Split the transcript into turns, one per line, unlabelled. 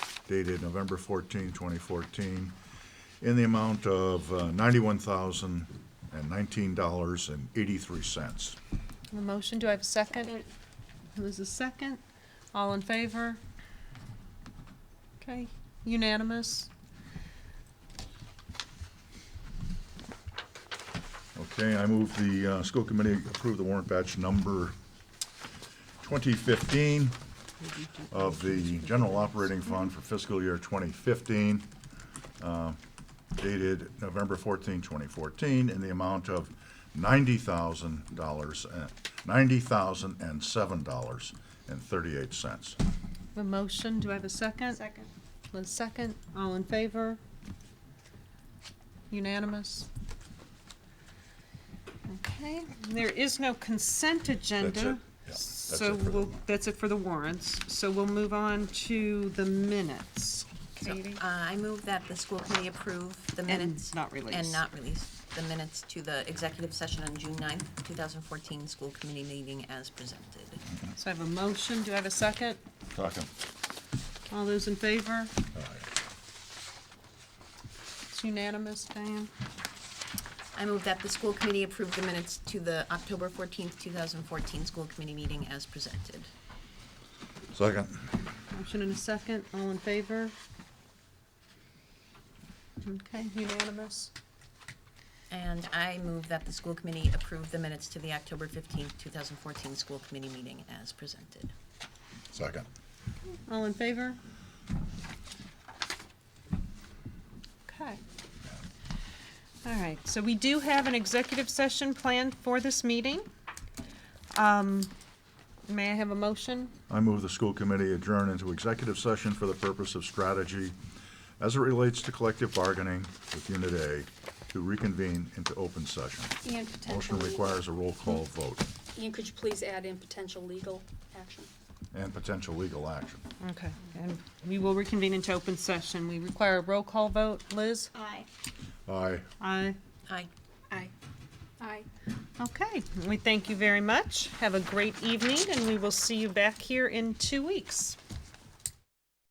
dated November 14, 2014, in the amount of uh, $91,019.83.
A motion, do I have a second?
Second.
There's a second. All in favor? Okay, unanimous.
Okay, I move the uh, school committee approve the warrant batch number 2015 of the general operating fund for fiscal year 2015, uh, dated November 14, 2014, in the amount of $90,000, uh, $90,007.38.
A motion, do I have a second?
Second.
A second. All in favor? Unanimous. Okay, there is no consent agenda.
Yeah, that's
So
it for the
we'll,
warrant.
that's it for the warrants. So we'll move on to the minutes. Katie?
Uh, I move that the school committee approve the
And
minutes.
not release.
And not release the minutes to the executive session on June 9th, 2014, school committee meeting as presented.
So I have a motion, do I have a second?
Second.
All those in favor?
All right.
It's unanimous, Diane?
I move that the school committee approve the minutes to the October 14th, 2014, school committee meeting as presented.
Second.
Motion and a second, all in favor? Okay, unanimous.
And I move that the school committee approve the minutes to the October 15th, 2014, school committee meeting as presented.
Second.
All in favor? Okay. All right, so we do have an executive session planned for this meeting. Um, May I have a motion?
I move the school committee adjourn into executive session for the purpose of strategy as it relates to collective bargaining with Unit A to reconvene into open session.
And
Motion
potential legal.
requires a roll call vote
Ian, could you please add in potential legal action?
and potential legal action.
Okay, and we will reconvene into open session. We require a roll call vote. Liz?
Aye.
Aye.
Aye.
Aye.
Aye. Aye.
Okay, we thank you very much. Have a great evening, and we will see you back here in two weeks.